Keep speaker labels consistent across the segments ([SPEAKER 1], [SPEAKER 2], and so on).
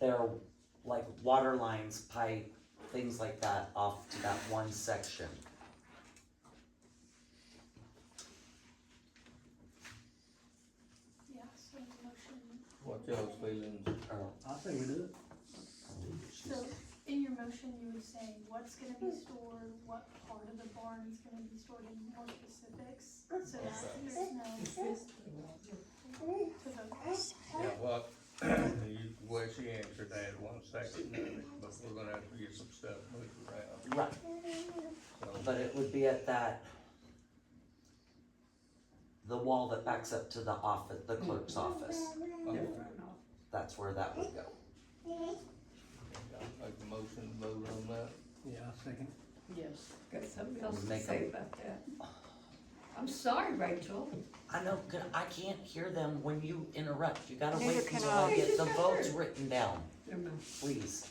[SPEAKER 1] their like water lines, pipe, things like that off to that one section.
[SPEAKER 2] Yeah, so the motion,
[SPEAKER 3] What y'all's feelings?
[SPEAKER 1] Or-
[SPEAKER 4] I think we do it.
[SPEAKER 2] so in your motion, you would say what's gonna be stored, what part of the barn is gonna be stored in more specifics, so that there's no. To the-
[SPEAKER 3] Yeah, what, you, well, she answered that one second, but we're gonna have to get some stuff moved around,
[SPEAKER 1] Right,
[SPEAKER 3] so.
[SPEAKER 1] but it would be at that the wall that backs up to the office, the clerk's office. That's where that would go.
[SPEAKER 3] I'll Make a motion to vote on that.
[SPEAKER 4] Yeah, I second.
[SPEAKER 5] Yes, got something else to
[SPEAKER 1] Make 'em-
[SPEAKER 5] say about that. I'm sorry, Rachel.
[SPEAKER 1] I know, 'cause I can't hear them when you interrupt. You gotta
[SPEAKER 6] Neither
[SPEAKER 1] wait
[SPEAKER 6] can
[SPEAKER 1] until I
[SPEAKER 6] I.
[SPEAKER 1] get the votes written down,
[SPEAKER 5] Never mind,
[SPEAKER 1] please.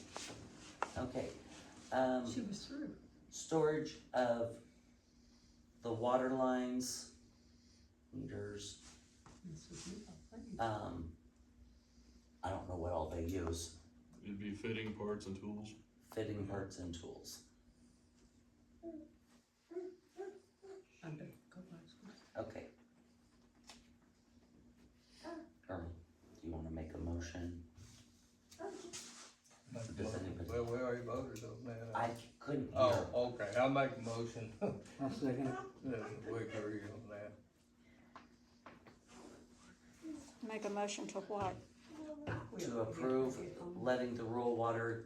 [SPEAKER 1] Okay, um.
[SPEAKER 5] She was through.
[SPEAKER 1] storage of the water lines, meters,
[SPEAKER 5] This was me, I think.
[SPEAKER 1] um, I don't know what all they use,
[SPEAKER 7] It'd be fitting parts and tools.
[SPEAKER 1] fitting parts and tools.
[SPEAKER 5] I better go last.
[SPEAKER 1] Okay. Earl, do you wanna make a motion?
[SPEAKER 3] Make a
[SPEAKER 1] Does
[SPEAKER 3] motion.
[SPEAKER 1] anybody-
[SPEAKER 3] Well, we already voted on that.
[SPEAKER 1] I couldn't hear.
[SPEAKER 3] Oh, okay, I'll make a motion, that
[SPEAKER 4] I second it.
[SPEAKER 3] we agree on that.
[SPEAKER 6] Make a motion to what?
[SPEAKER 1] To approve letting the rural water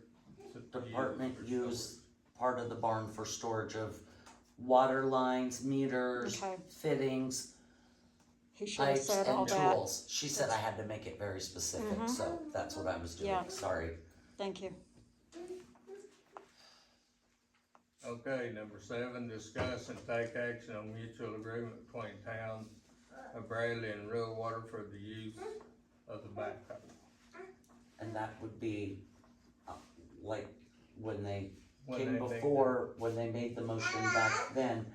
[SPEAKER 1] department
[SPEAKER 3] Use or
[SPEAKER 1] use part of the barn for storage of water lines, meters,
[SPEAKER 6] Okay,
[SPEAKER 1] fittings,
[SPEAKER 6] he should have
[SPEAKER 1] pipes
[SPEAKER 6] said all
[SPEAKER 1] and
[SPEAKER 6] that.
[SPEAKER 1] tools. She said I had to make it very specific,
[SPEAKER 6] Mhm.
[SPEAKER 1] so that's what I was doing,
[SPEAKER 6] Yeah.
[SPEAKER 1] sorry.
[SPEAKER 6] Thank you.
[SPEAKER 3] Okay, number seven, discuss and take action on mutual agreement between town of Bradley and Real Water for the use of the backhoe.
[SPEAKER 1] And that would be, uh, like, when they
[SPEAKER 3] When
[SPEAKER 1] came
[SPEAKER 3] they think-
[SPEAKER 1] before, when they made the motion back then,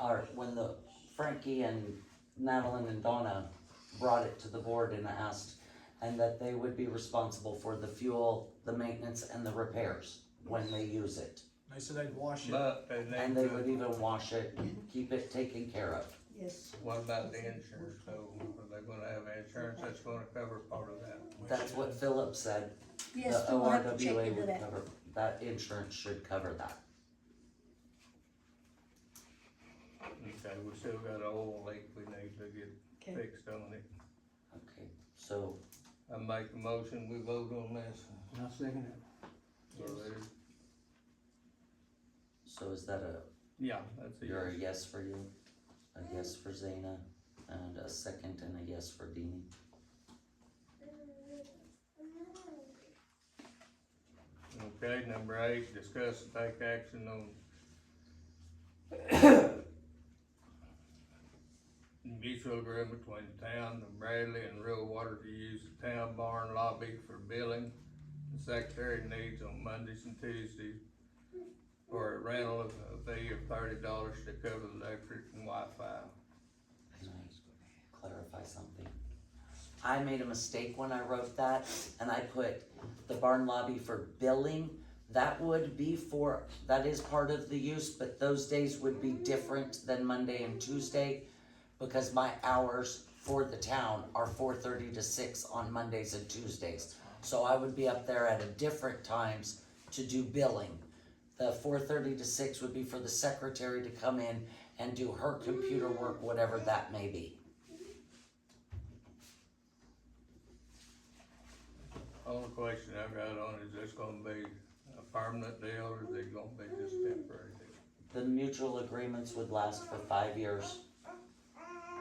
[SPEAKER 1] or when the Frankie and Madeline and Donna brought it to the board and asked, and that they would be responsible for the fuel, the maintenance, and the repairs when they use it.
[SPEAKER 4] They said they'd wash
[SPEAKER 3] But they
[SPEAKER 1] And
[SPEAKER 3] need
[SPEAKER 1] they would
[SPEAKER 3] to,
[SPEAKER 1] even wash it, keep it taken care of.
[SPEAKER 5] Yes.
[SPEAKER 3] what about the insurance, so are they gonna have insurance that's gonna cover part of that?
[SPEAKER 1] That's what Philip said,
[SPEAKER 8] Yes,
[SPEAKER 1] The
[SPEAKER 8] we will have to check
[SPEAKER 1] ORWA
[SPEAKER 8] into
[SPEAKER 1] would
[SPEAKER 8] that.
[SPEAKER 1] cover, that insurance should cover that.
[SPEAKER 3] Okay, we still got an oil leak we need to get
[SPEAKER 5] Okay.
[SPEAKER 3] fixed on it.
[SPEAKER 1] Okay, so,
[SPEAKER 3] I make a motion, we vote on this.
[SPEAKER 4] I second it.
[SPEAKER 3] So there's-
[SPEAKER 1] so is that a,
[SPEAKER 3] Yeah, that's a
[SPEAKER 1] you're a
[SPEAKER 3] yes.
[SPEAKER 1] yes for you? A yes for Zena, and a second and a yes for Deanie?
[SPEAKER 3] Okay, number eight, discuss and take action on mutual agreement between the town of Bradley and Real Water to use the town barn lobby for billing. The secretary needs on Mondays and Tuesdays for a rental of a fee of thirty dollars to cover the electric and Wi-Fi.
[SPEAKER 1] Can I clarify something? I made a mistake when I wrote that, and I put the barn lobby for billing. That would be for, that is part of the use, but those days would be different than Monday and Tuesday because my hours for the town are four thirty to six on Mondays and Tuesdays. So I would be up there at a different times to do billing. The four thirty to six would be for the secretary to come in and do her computer work, whatever that may be.
[SPEAKER 3] Only question I've got on is this gonna be a permanent deal or is it gonna be just temporary?
[SPEAKER 1] The mutual agreements would last for five years.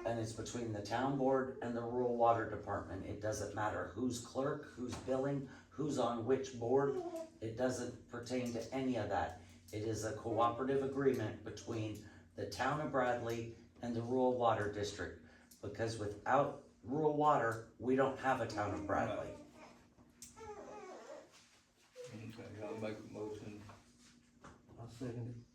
[SPEAKER 1] And it's between the town board and the rural water department. It doesn't matter who's clerk, who's billing, who's on which board. It doesn't pertain to any of that. It is a cooperative agreement between the town of Bradley and the rural water district. Because without rural water, we don't have a town of Bradley.
[SPEAKER 3] Okay, I'll make a motion
[SPEAKER 4] I second